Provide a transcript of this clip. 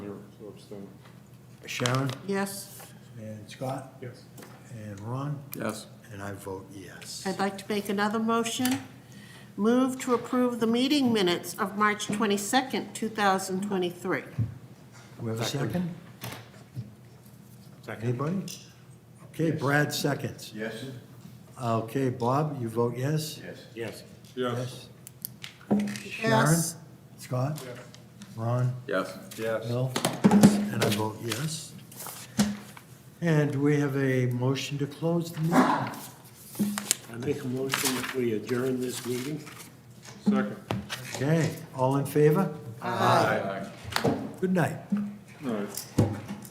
abstain. Sharon, Yes, and Scott, Yes. and Ron, Yes. and I vote yes. I'd like to make another motion. Move to approve the meeting minutes of March 22nd, 2023. We have a second? Second. Anybody? Okay, Brad seconds. Yes? Okay, Bob, you vote yes? Yes. Yes. Yes. Sharon? Yes. Scott? Ron? Yes. Yes. Bill? And I vote yes. And we have a motion to close the meeting. I make a motion that we adjourn this meeting. Second. Okay, all in favor? Aye. Good night. All right.